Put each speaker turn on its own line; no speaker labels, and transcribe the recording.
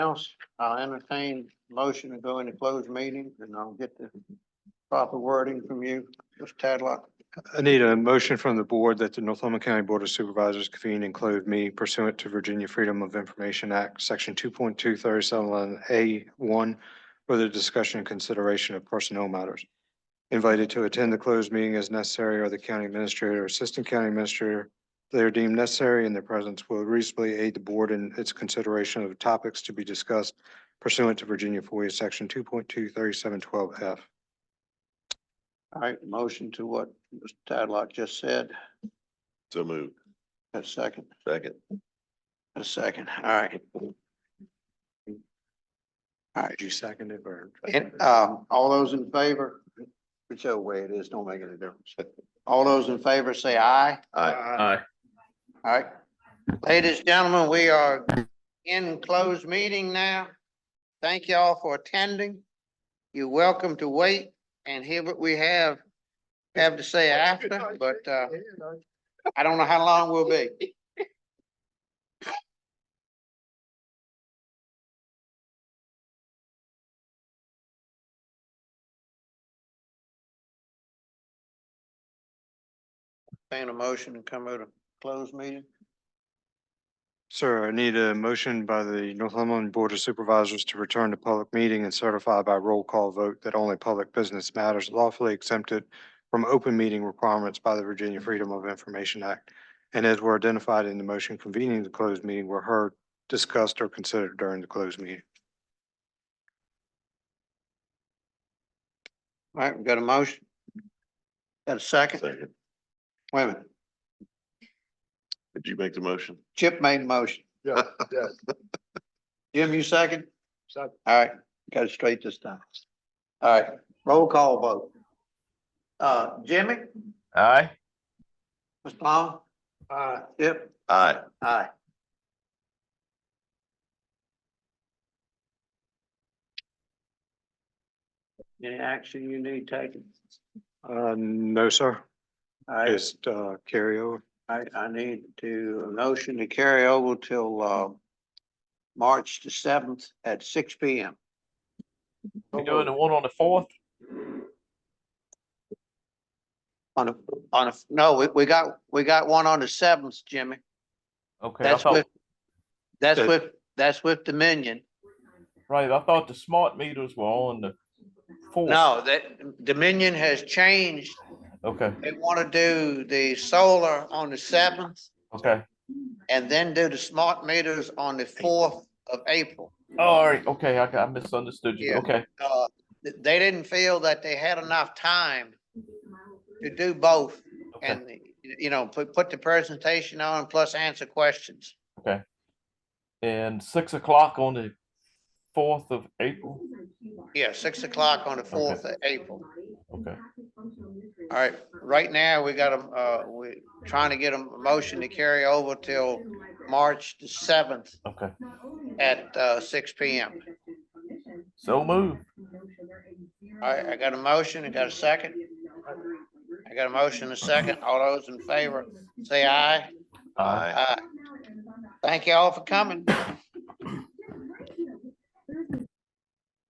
else, I'll entertain motion to go into closed meeting and I'll get the proper wording from you, Mr. Tadlock.
I need a motion from the board that the Northumberland County Board of Supervisors convene and clothe me pursuant to Virginia Freedom of Information Act, section two point two thirty-seven A one, for the discussion and consideration of personnel matters. Invited to attend the closed meeting as necessary are the county administrator, or assistant county administrator. They are deemed necessary and their presence will reasonably aid the board in its consideration of topics to be discussed pursuant to Virginia FOIA section two point two thirty-seven twelve F.
All right, motion to what Mr. Tadlock just said,
So moved.
a second,
Second.
a second, all right. All right,
Did you second it or?
and, um, all those in favor, whichever way it is, don't make any difference. All those in favor say aye.
Aye.
Aye.
All right. Ladies, and gentlemen, we are in closed meeting now. Thank you all for attending. You're welcome to wait and hear what we have, have to say after, but, uh, I don't know how long we'll be. Entertain a motion and come out of closed meeting.
Sir, I need a motion by the Northumberland Board of Supervisors to return to public meeting and certify by roll call vote that only public business matters lawfully exempted from open meeting requirements by the Virginia Freedom of Information Act and as were identified in the motion convening the closed meeting were heard, discussed, or considered during the closed meeting.
All right, we got a motion. Got a second?
Second.
Wait a minute.
Did you make the motion?
Chip made a motion.
Yeah,
yeah. Jim, you second? Second. All right, got it straight this time. All right, roll call vote. Uh, Jimmy,
Aye.
Mr. Long? Aye. Chip?
Aye.
Aye. Any action you need taken?
Uh, no, sir.
I,
Just, uh, carry over.
I, I need to, a motion to carry over till, uh, March the seventh at six P M.
You doing the one on the fourth?
On a, on a, no, we, we got, we got one on the seventh, Jimmy.
Okay, I
That's
thought,
with, that's
That-
with, that's with Dominion.
right, I thought the smart meters were on the fourth.
No, that Dominion has changed.
Okay,
They want to do the solar on the seventh
okay.
and then do the smart meters on the fourth of April.
Oh, All right, okay, I, I misunderstood you.
Yeah.
Okay,
Uh, th- they didn't feel that they had enough time to do both
okay,
and, you know, put, put the presentation on plus answer questions.
okay. And six o'clock on the fourth of April?
Yeah, six o'clock on the fourth of April.
Okay.
All right, right now, we got a, uh, we're trying to get a motion to carry over till March the seventh
Okay,
at, uh, six P M.
so move.
All right, I got a motion, I got a second. I got a motion, and a second, all those in favor, say aye.
Aye.
Aye. Thank you all for coming.